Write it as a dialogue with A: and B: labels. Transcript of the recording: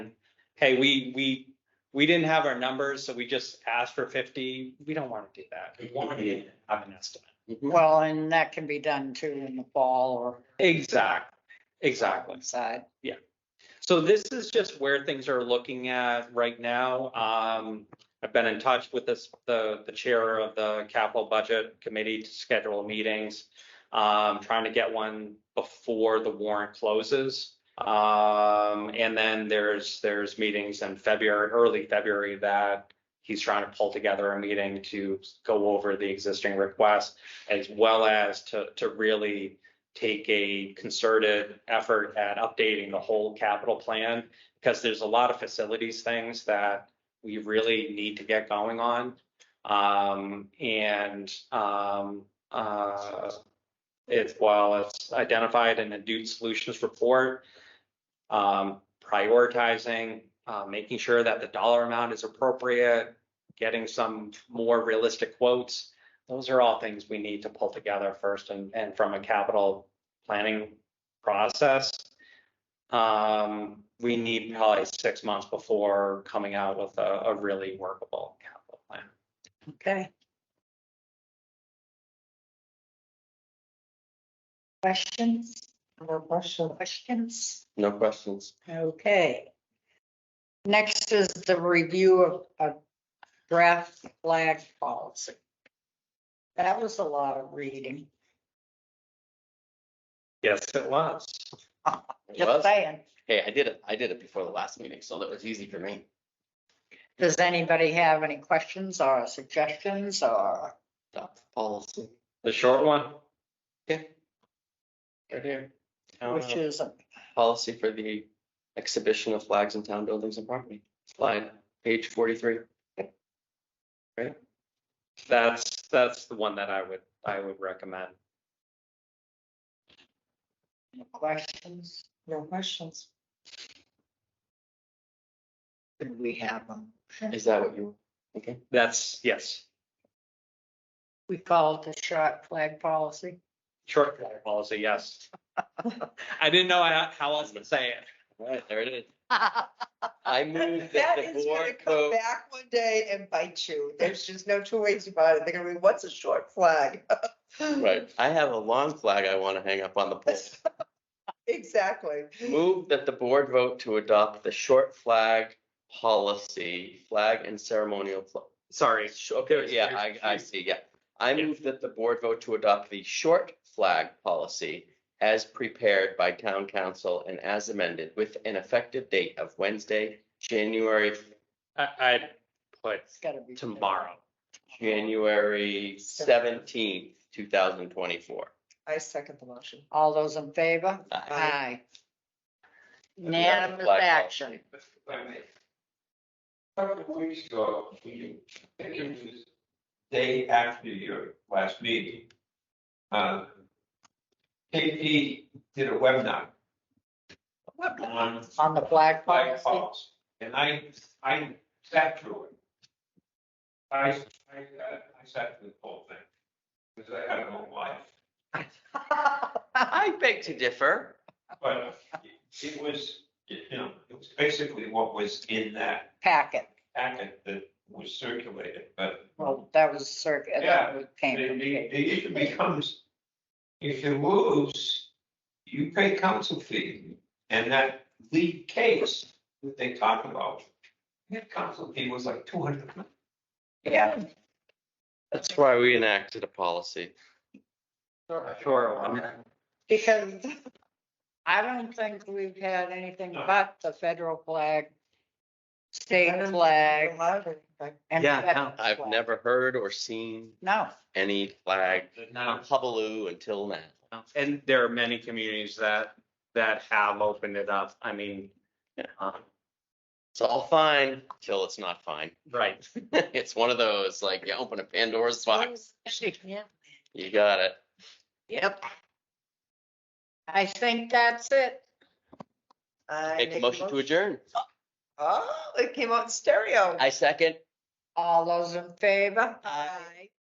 A: hey, we, we, we didn't have our numbers, so we just asked for fifty. We don't want to do that. We want to have an estimate.
B: Well, and that can be done too in the fall or
A: Exactly, exactly.
B: side.
A: So this is just where things are looking at right now. Um, I've been in touch with this, the, the chair of the capital budget committee to schedule meetings. Um, trying to get one before the warrant closes. Um, and then there's, there's meetings in February, early February that he's trying to pull together a meeting to go over the existing requests as well as to, to really take a concerted effort at updating the whole capital plan because there's a lot of facilities things that we really need to get going on. Um, and, um, uh, it's, while it's identified in the Dude Solutions Report, um, prioritizing, uh, making sure that the dollar amount is appropriate, getting some more realistic quotes those are all things we need to pull together first and, and from a capital planning process. Um, we need probably six months before coming out with a, a really workable capital plan.
B: Okay. Questions? No questions?
C: No questions.
B: Okay. Next is the review of a draft flag policy. That was a lot of reading,
A: Yes, it was.
C: It
B: just
C: was.
B: saying.
C: Hey, I did it, I did it before the last meeting, so that was easy for me.
B: Does anybody have any questions or suggestions or?
C: Adopt the policy.
A: The short one.
C: Yeah. Right here,
B: Which is,
C: policy for the exhibition of flags in town buildings and property, slide, page forty-three.
A: That's, that's the one that I would, I would recommend.
B: questions? No questions. Could we have um, them?
C: Is that what you, okay?
A: That's, yes,
B: We call it the shot flag policy.
A: short policy, yes. I didn't know how how else to say it.
C: All right, there it is.
B: That
C: I move that the
B: is gonna
C: board
B: come
C: vote,
B: back one day and bite you. There's just no two ways about it. They're gonna be, what's a short flag?
C: right, I have a lawn flag I want to hang up on the pole.
B: Exactly.
C: Move that the board vote to adopt the short flag policy, flag and ceremonial fl-
A: Sorry.
C: Sh- Okay, yeah, I, I see, yeah. I move that the board vote to adopt the short flag policy as prepared by town council and as amended with an effective date of Wednesday, January,
A: I, I put
B: It's gotta be.
A: tomorrow.
C: January seventeenth, two thousand twenty-four.
D: I second the motion.
B: All those in favor? Aye. Unanimous
C: Flag
B: action.
E: Couple of weeks ago, we, I think it was day after your last meeting. uh, KP did a webinar. On
B: On the flag
E: flag
B: policy.
E: policy, and I, I sat through it. I, I, uh, I sat through the whole thing, because I had no life,
C: I beg to differ.
E: but it was, you know, it was basically what was in that
B: Packet.
E: packet that was circulated, but
B: Well, that was circuit, that
E: Yeah,
B: was- came
E: The,
B: from
E: the-
B: Kate.
E: the issue becomes, if you lose, you pay counsel fee, and that lead case that they talk about, that counsel fee was like two hundred.
B: Yeah,
C: That's why we enacted a policy.
A: Sure.
B: because I don't think we've had anything
E: No.
B: but the federal flag, state flag, and.
C: Yeah,
B: federal
C: I've
B: flag.
C: never heard or seen
B: No,
C: any flag
A: Now,
C: hubaloo until now.
A: And there are many communities that, that have opened it up. I mean,
C: Yeah.
A: uh,
C: It's all fine till it's not fine.
A: right.
C: it's one of those like you open a Pandora's box. You got it.
B: yep. I think that's it.
C: Make a motion to adjourn.
D: Oh, it came out in stereo.
C: I second.
B: All those in favor?
D: Aye.